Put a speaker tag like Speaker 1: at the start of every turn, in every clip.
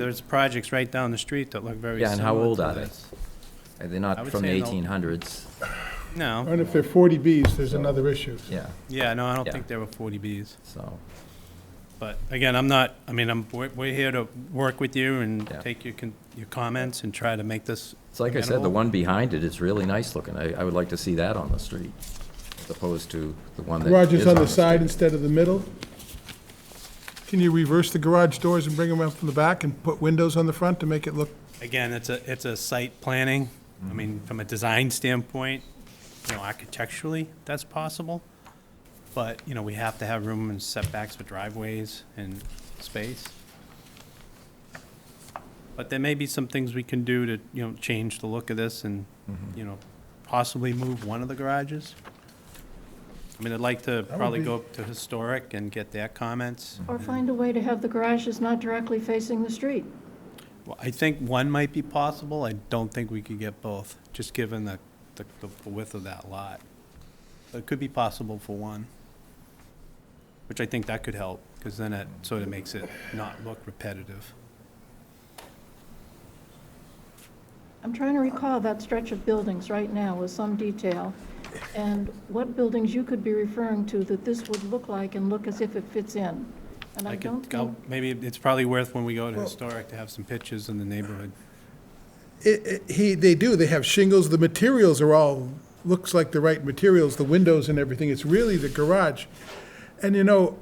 Speaker 1: There's projects right down the street that look very
Speaker 2: Yeah,
Speaker 1: similar
Speaker 2: and
Speaker 1: to
Speaker 2: how old are they?
Speaker 1: this.
Speaker 2: Are they
Speaker 1: I
Speaker 2: not
Speaker 1: would
Speaker 2: from the
Speaker 1: say an old-
Speaker 2: 1800s?
Speaker 1: No,
Speaker 3: And if they're 40Bs, there's another issue.
Speaker 2: Yeah,
Speaker 1: yeah, no, I don't
Speaker 2: Yeah.
Speaker 1: think they were 40Bs.
Speaker 2: so,
Speaker 1: But again, I'm not, I mean, I'm, we're we're here to work with you and
Speaker 2: Yeah.
Speaker 1: take your, con- your comments and try to make this.
Speaker 2: it's like I said, the
Speaker 1: amenable.
Speaker 2: one behind it is really nice looking. I, I would like to see that on the street, as opposed to the one that is on
Speaker 3: Garage is on the side
Speaker 2: street.
Speaker 3: instead of the middle. Can you reverse the garage doors and bring them up from the back and put windows on the front to make it look?
Speaker 1: Again, it's a, it's a site planning. I mean, from a design standpoint, you know, architecturally, that's possible. But, you know, we have to have room and setbacks for driveways and space. But there may be some things we can do to, you know, change the look of this and,
Speaker 3: Mm-hmm.
Speaker 1: you know, possibly move one of the garages. I mean, I'd like to
Speaker 3: would
Speaker 1: probably
Speaker 3: be- Mm-hmm.
Speaker 1: go up to historic and get their comments.
Speaker 4: Or find a way to have the garages not directly facing the street.
Speaker 1: Well, I think one might be possible. I don't think we could get both, just given the, the the width of that lot. But It could be possible for one, which I think that could help, because then it sort of makes it not look repetitive.
Speaker 4: I'm trying to recall that stretch of buildings right now with some detail, and what buildings you could be referring to that this would look like and look as if it fits in. And I
Speaker 1: I
Speaker 4: don't
Speaker 1: could go,
Speaker 4: think,
Speaker 1: maybe it's probably worth when we go to
Speaker 3: Well-
Speaker 1: historic to have some pictures in the neighborhood.
Speaker 3: It, it, he, they do, they have shingles, the materials are all, looks like the right materials, the windows and everything, it's really the garage. And you know,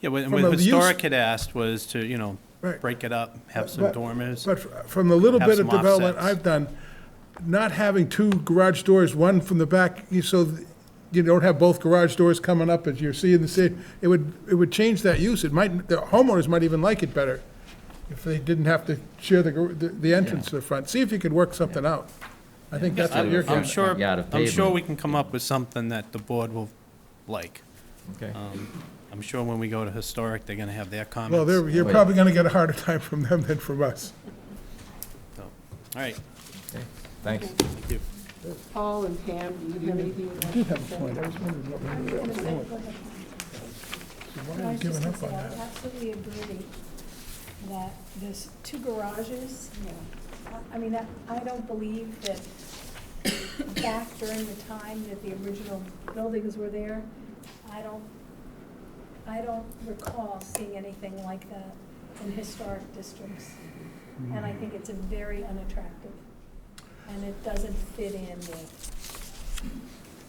Speaker 1: Yeah, what
Speaker 3: From
Speaker 1: what
Speaker 3: a use-
Speaker 1: historic had asked was to, you know,
Speaker 3: Right.
Speaker 1: break it up, have some
Speaker 3: But-
Speaker 1: dormers.
Speaker 3: But f- from the little
Speaker 1: Have
Speaker 3: bit of
Speaker 1: some
Speaker 3: development
Speaker 1: offsets.
Speaker 3: I've done, not having two garage doors, one from the back, you- so th- you don't have both garage doors coming up as you're seeing the city, it would, it would change that use. It might, the homeowners might even like it better if they didn't have to share the, gar- the- the entrance to the front. See if you could work something out. I think that's what
Speaker 1: I'm
Speaker 2: Absolutely.
Speaker 3: you're.
Speaker 1: I'm
Speaker 3: getting.
Speaker 1: sure,
Speaker 2: Front yard uh, of
Speaker 1: I'm sure
Speaker 2: pavement.
Speaker 1: we can come up with something that the board will like.
Speaker 2: Okay.
Speaker 1: Um, I'm sure when we go to historic, they're gonna have their comments.
Speaker 3: Well, they're- you're
Speaker 2: Wait.
Speaker 3: probably gonna get a harder time from them than from us.
Speaker 1: So, All right,
Speaker 2: Okay, Thanks.
Speaker 1: thank you.
Speaker 5: Paul and Pam, do you have anything?
Speaker 3: I did have a point. I was wondering what we were doing. Why are we giving up on that?
Speaker 6: I absolutely agree that there's two garages. I mean, that, I don't believe that back during the time that the original buildings were there, I don't, I don't recall seeing anything like that in historic districts. And I think it's a very unattractive, and it doesn't fit in with,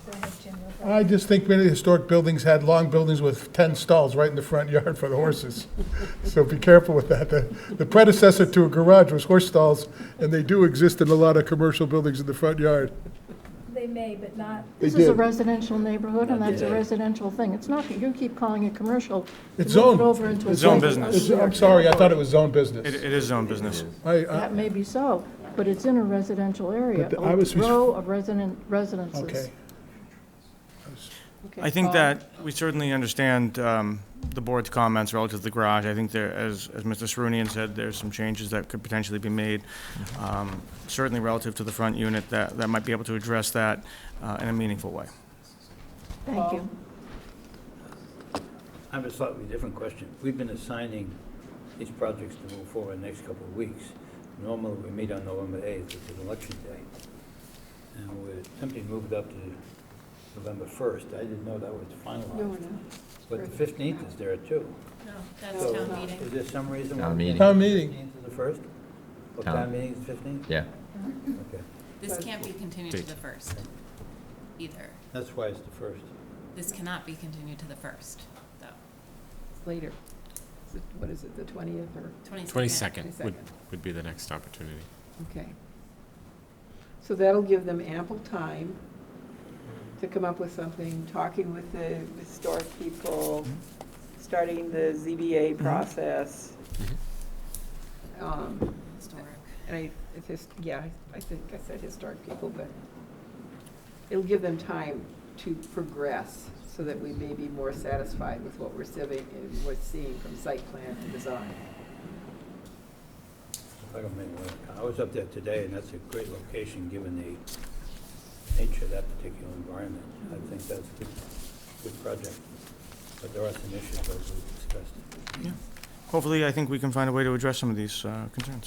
Speaker 6: go ahead, Jim. you're
Speaker 3: I
Speaker 6: right.
Speaker 3: just think many historic buildings had long buildings with 10 stalls right in the front yard for the horses. So be careful with that. The the predecessor to a garage was horse stalls, and they do exist in a lot of commercial buildings in the front yard.
Speaker 6: They may, but not
Speaker 3: They
Speaker 4: this is a
Speaker 3: did.
Speaker 4: residential neighborhood, and that's a residential thing. It's not, you keep calling it commercial. You
Speaker 3: It's
Speaker 4: moved
Speaker 3: zoned.
Speaker 4: it over into a
Speaker 3: It's
Speaker 1: zoned
Speaker 4: private
Speaker 1: business.
Speaker 3: It's-
Speaker 4: area.
Speaker 3: I'm sorry, I thought it was zone
Speaker 7: It,
Speaker 3: business.
Speaker 7: it is own business.
Speaker 3: I- I-
Speaker 4: That may be so, but it's in a residential area,
Speaker 3: But the- I
Speaker 4: a
Speaker 3: was-
Speaker 4: row of resident, residences.
Speaker 3: Okay.
Speaker 7: I think that we certainly understand um, the board's comments relative to the garage. I think there, as, as Mr. Serunian said, there's some changes that could potentially be made, um, certainly relative to the front unit, that, that might be able to address that uh, in a meaningful way.
Speaker 4: Thank you.
Speaker 8: I have a slightly different question. We've been assigning these projects to move forward in the next couple of weeks. Normally, we meet on November 8th, which is election day, and we're attempting to move it up to November 1st. I didn't know that was finalized, but the 15th is there too.
Speaker 9: No, that's town meeting.
Speaker 8: Is there some reason?
Speaker 2: Town
Speaker 8: why
Speaker 2: meeting.
Speaker 3: Town meeting.
Speaker 8: 15th is the 1st? Or
Speaker 2: Town.
Speaker 8: town meeting is 15th?
Speaker 2: Yeah,
Speaker 8: Okay.
Speaker 9: This can't be continued to the first either.
Speaker 8: That's why it's the 1st.
Speaker 9: This cannot be continued to the first, though.
Speaker 5: Later. Is it- What is it, the 20th or,
Speaker 9: Twenty-second.
Speaker 5: Second.
Speaker 10: would be the next opportunity.
Speaker 5: okay. So that'll give them ample time to come up with something, talking with the historic people, starting the ZBA process. Um,
Speaker 9: Historic.
Speaker 5: And I, it's just, yeah, I think I said historic people, but it'll give them time to progress so that we may be more satisfied with what we're seeing, we're seeing from site plan to design.
Speaker 8: I don't make one. I was up there today, and that's a great location, given the nature of that particular environment. I think that's a good, good project, but there are some issues that we discussed.
Speaker 7: Of hopefully, I think we can find a way to address some of these uh, concerns.